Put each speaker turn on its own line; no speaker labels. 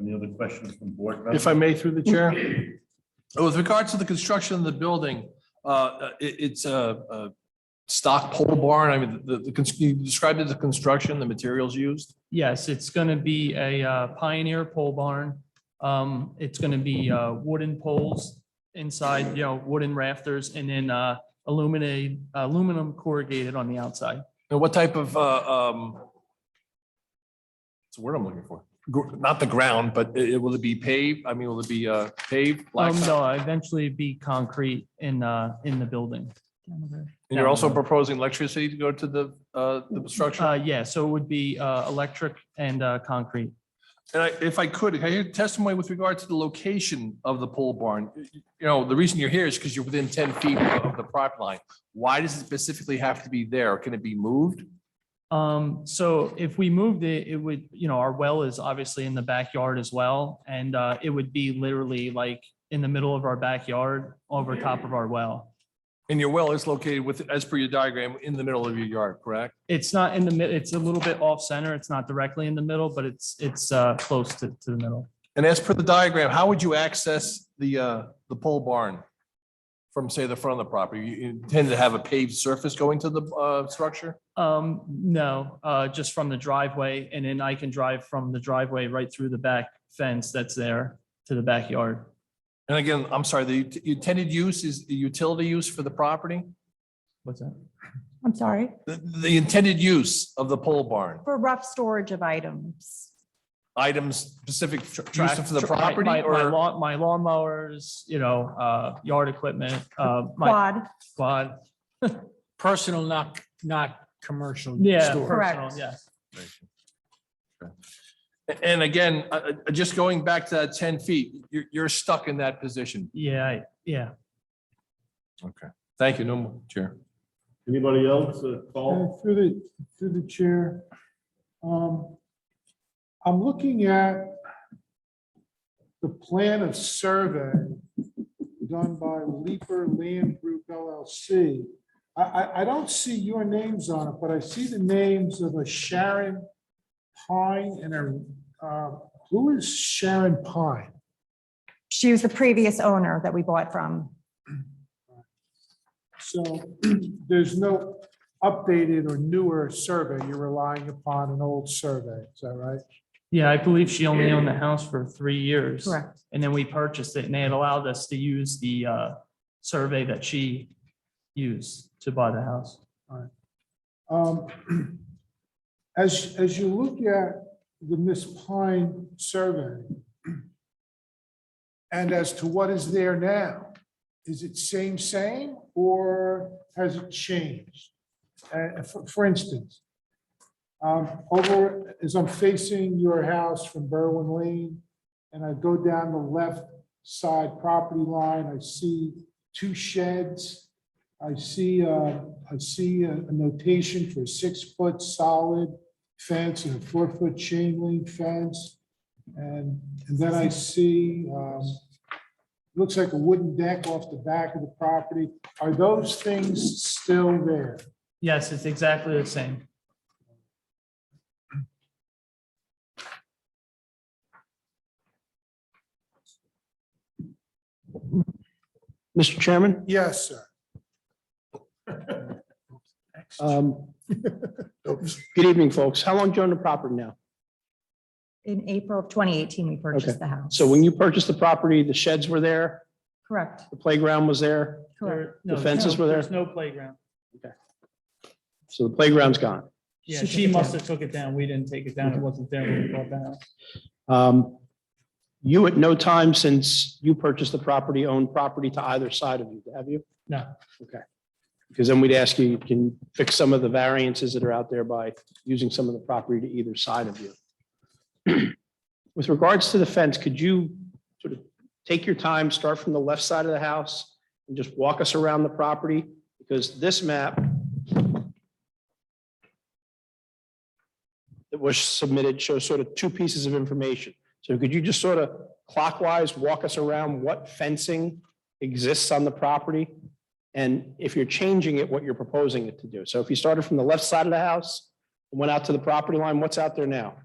Any other questions from board members?
If I may, through the chair. With regards to the construction of the building, uh, it- it's a a stock pole barn. I mean, the, the, cons- you described it as a construction, the materials used.
Yes, it's going to be a uh, Pioneer pole barn. Um, It's going to be uh, wooden poles inside, you know, wooden rafters and then uh, illuminated, aluminum corrugated on the outside. Um,
And what type of, uh, um, what's the word I'm looking for? Gr- Not the ground, but it, it- will it be paved? I mean, will it be uh, paved?
Um,
blacktop?
They'll eventually be concrete in, uh, in the building.
And you're also proposing electricity to go to the, uh, the structure?
Uh, Yeah, so it would be uh, electric and uh, concrete.
And I, if I could, can I hear testimony with regard to the location of the pole barn? You know, the reason you're here is because you're within ten feet of the property line. Why does it specifically have to be there? Can it be moved?
Um, so if we moved it, it would, you know, our well is obviously in the backyard as well. And, uh, it would be literally like in the middle of our backyard over top of our well.
And your well is located with, as per your diagram, in the middle of your yard, correct?
It's not in the mid, it's a little bit off center. It's not directly in the middle, but it's, it's, uh, close to, to the middle.
And as per the diagram, how would you access the, uh, the pole barn from, say, the front of the property? You intend to have a paved surface going to the, uh, structure?
Um, no, uh, just from the driveway and then I can drive from the driveway right through the back fence that's there to the backyard.
And again, I'm sorry, the intended use is the utility use for the property?
What's that?
I'm sorry,
The, the intended use of the pole barn?
for rough storage of items.
items specific tr- use of the
Tra- my-
property
My, my
or?
lawn, my lawnmowers, you know, uh, yard equipment, uh, my
Quad,
quad.
personal, not, not commercial.
Yeah.
store.
Correct.
personal, Yes.
And again, uh, uh, just going back to that ten feet, you're, you're stuck in that position.
Yeah, I- yeah.
Okay. Thank you, no more, Chair.
Anybody else? Uh, Paul?
Uh, Through the, through the chair. Um, I'm looking at the plan of survey done by Leaper Land Group LLC. I, I, I don't see your names on it, but I see the names of a Sharon Pine and a, uh, who is Sharon Pine?
she was the previous owner that we bought from.
So there's no updated or newer survey. You're relying upon an old survey. Is that right?
Yeah, I believe she only owned the house for three years.
Correct.
And then we purchased it and they had allowed us to use the, uh, survey that she used to buy the house.
Um, As, as you look at the Miss Pine survey, and as to what is there now, is it same, same, or has it changed? Uh, For for instance, um, over, as I'm facing your house from Berwin Lane, and I go down the left side property line, I see two sheds. I see, uh, I see a a notation for a six-foot solid fence and a four-foot chain link fence. And, and then I see, um, looks like a wooden deck off the back of the property. Are those things still there?
Yes, it's exactly the same.
Mr. Chairman,
Yes, sir.
um, good evening, folks. How long you own the property now?
In April of 2018, we purchased the house.
So when you purchased the property, the sheds were there,
Correct,
the playground was there,
correct.
There- no,
The fences
no,
were there?
There's no playground.
so the playground's gone.
Yeah,
She took
she
it
must
down.
have took it down. We didn't take it down. It wasn't there when we bought the house.
Um, You at no time since you purchased the property owned property to either side of you, have you?
No.
Okay. Because then we'd ask you, you can fix some of the variances that are out there by using some of the property to either side of you. With regards to the fence, could you sort of take your time, start from the left side of the house and just walk us around the property? Because this map that was submitted shows sort of two pieces of information. So could you just sort of clockwise walk us around what fencing exists on the property? And if you're changing it, what you're proposing it to do? So if you started from the left side of the house, and went out to the property line, what's out there now?